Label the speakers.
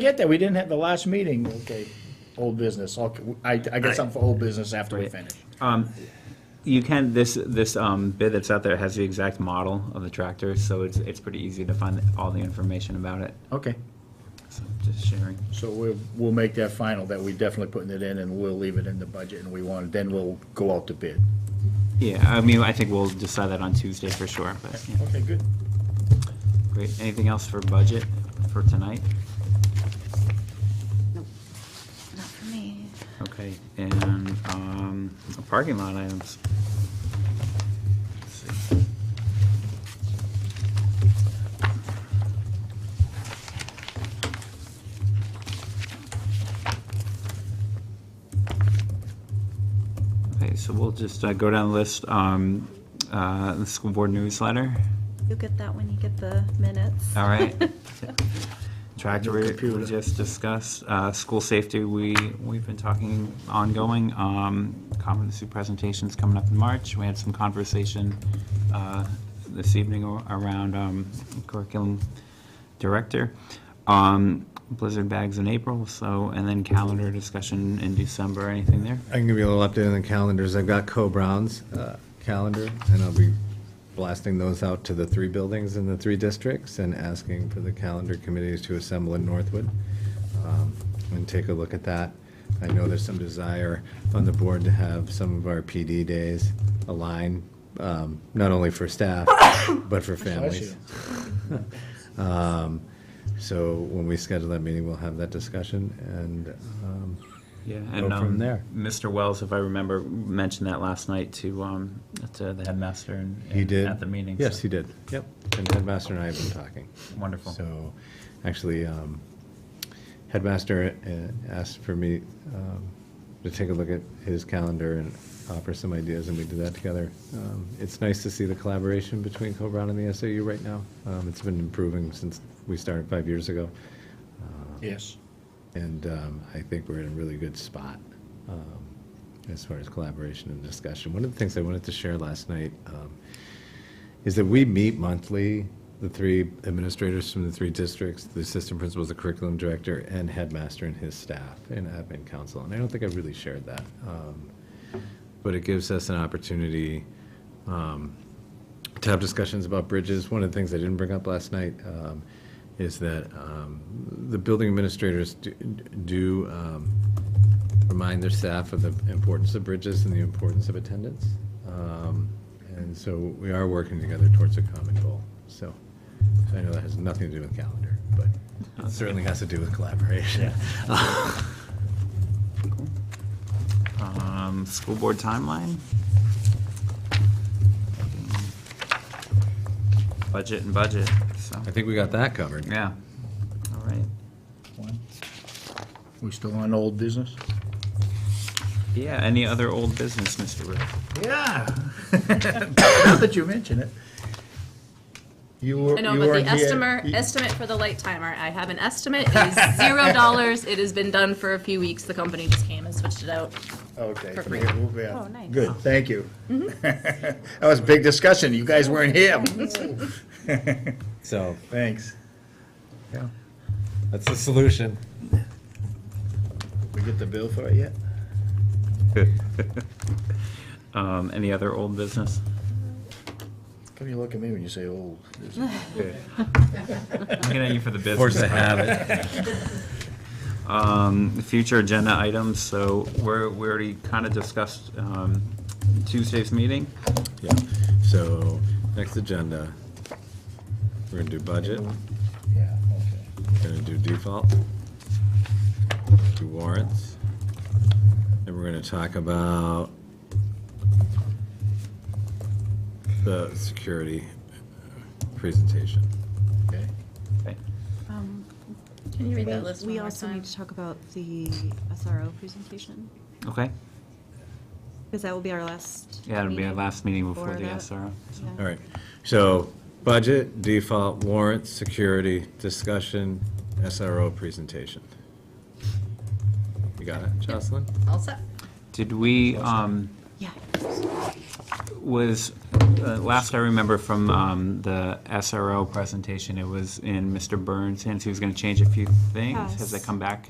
Speaker 1: get that, we didn't have the last meeting, okay, old business, okay, I, I got something for old business after we
Speaker 2: Right.
Speaker 1: finish.
Speaker 2: You can, this, this um, bid that's out there has the exact model of the tractor, so it's, it's pretty easy to find all the information about it.
Speaker 1: Okay,
Speaker 2: So just sharing.
Speaker 1: so we'll, we'll make that final, that we definitely putting it in, and we'll leave it in the budget, and we want, then we'll go out to bid.
Speaker 2: Yeah, I mean, I think we'll decide that on Tuesday for sure, but, yeah,
Speaker 1: Okay, good.
Speaker 2: great. Anything else for budget for tonight?
Speaker 3: Not for me.
Speaker 2: Okay, and, um, parking lot items. Let's see. Okay, so we'll just uh, go down the list, um, uh, the school board newsletter,
Speaker 3: You'll get that when you get the minutes.
Speaker 2: all right? Tractor we- we
Speaker 1: Computer.
Speaker 2: just discussed, uh, school safety, we, we've been talking ongoing, um, competency presentations coming up in March. We had some conversation, uh, this evening ar- around, um, curriculum director. Um, blizzard bags in April, so, and then calendar discussion in December, anything there?
Speaker 4: I can give you a little update on the calendars. I've got Co-Brown's uh, calendar, and I'll be blasting those out to the three buildings in the three districts and asking for the calendar committees to assemble in Northwood um, and take a look at that. I know there's some desire on the board to have some of our PD days aligned, um, not only for staff, but for families. Um, So when we schedule that meeting, we'll have that discussion, and um,
Speaker 2: Yeah,
Speaker 4: Go
Speaker 2: and,
Speaker 4: from
Speaker 2: um,
Speaker 4: there.
Speaker 2: Mr. Wells, if I remember, mentioned that last night to, um, to the headmaster and.
Speaker 4: He did?
Speaker 2: At the meeting. so-
Speaker 4: Yes, he did. Yep. And Headmaster and I have been talking.
Speaker 2: Wonderful.
Speaker 4: So, actually, um, Headmaster uh, asked for me um, to take a look at his calendar and offer some ideas, and we did that together. Um, It's nice to see the collaboration between Co-Brown and the SAU right now. Um, It's been improving since we started five years ago. Uh,
Speaker 1: Yes.
Speaker 4: And um, I think we're in a really good spot um, as far as collaboration and discussion. One of the things I wanted to share last night um, is that we meet monthly, the three administrators from the three districts, the assistant principals, the curriculum director, and headmaster and his staff and admin council. And I don't think I really shared that. Um, But it gives us an opportunity to have discussions about bridges. One of the things I didn't bring up last night um, is that um, the building administrators do- do um, remind their staff of the importance of bridges and the importance of attendance. Um, And so we are working together towards a common goal. So I know that has nothing to do with calendar, but it certainly has to do with collaboration.
Speaker 2: Um, school board timeline. Budget and budget, so,
Speaker 4: I think we got that covered.
Speaker 2: yeah, all right.
Speaker 1: One. We still on old business?
Speaker 2: Yeah, any other old business, Mr. Rick?
Speaker 1: Yeah. Now that you mention it. You were,
Speaker 5: I know,
Speaker 1: you
Speaker 5: but
Speaker 1: weren't
Speaker 5: the
Speaker 1: here.
Speaker 5: estimate,
Speaker 1: You-
Speaker 5: estimate for the light timer, I have an estimate, it is zero dollars, it has been done for a few weeks, the company just came and switched it out.
Speaker 1: Okay.
Speaker 5: For
Speaker 1: from
Speaker 5: free. Mm-hmm.
Speaker 1: here, we'll- yeah.
Speaker 3: Oh, nice.
Speaker 1: Good, thank you. That was a big discussion, you guys weren't here.
Speaker 4: So
Speaker 1: Thanks. Yeah.
Speaker 4: that's the solution.
Speaker 1: We get the bill for it yet?
Speaker 2: Um, any other old business?
Speaker 1: Come you look at me when you say "Oh, old.
Speaker 2: Looking at you for the business.
Speaker 4: Force a habit.
Speaker 2: Um, future agenda items, so we're, we already kind of discussed, um, Tuesday's meeting.
Speaker 4: Yeah. So next agenda, we're going to do budget.
Speaker 1: Yeah, okay.
Speaker 4: We're gonna do default, do warrants, and we're gonna talk about the security presentation.
Speaker 1: Okay.
Speaker 2: Okay.
Speaker 3: Um,
Speaker 5: Can you read that list one
Speaker 3: We
Speaker 5: more
Speaker 3: also
Speaker 5: time?
Speaker 3: need to talk about the SRO presentation,
Speaker 2: Okay,
Speaker 3: because that will be our last.
Speaker 2: yeah, it'll be our
Speaker 3: meeting
Speaker 2: last meeting before the
Speaker 3: that.
Speaker 2: SRO. so.
Speaker 3: Yeah.
Speaker 4: All right, so budget, default, warrants, security, discussion, SRO presentation. You got it, Jocelyn?
Speaker 5: All set.
Speaker 2: Did we, um,
Speaker 3: Yeah.
Speaker 2: was, uh, last I remember from um, the SRO presentation, it was in Mr. Burns' hands. He was going to change a few things. Has that
Speaker 3: Yes.
Speaker 2: come back?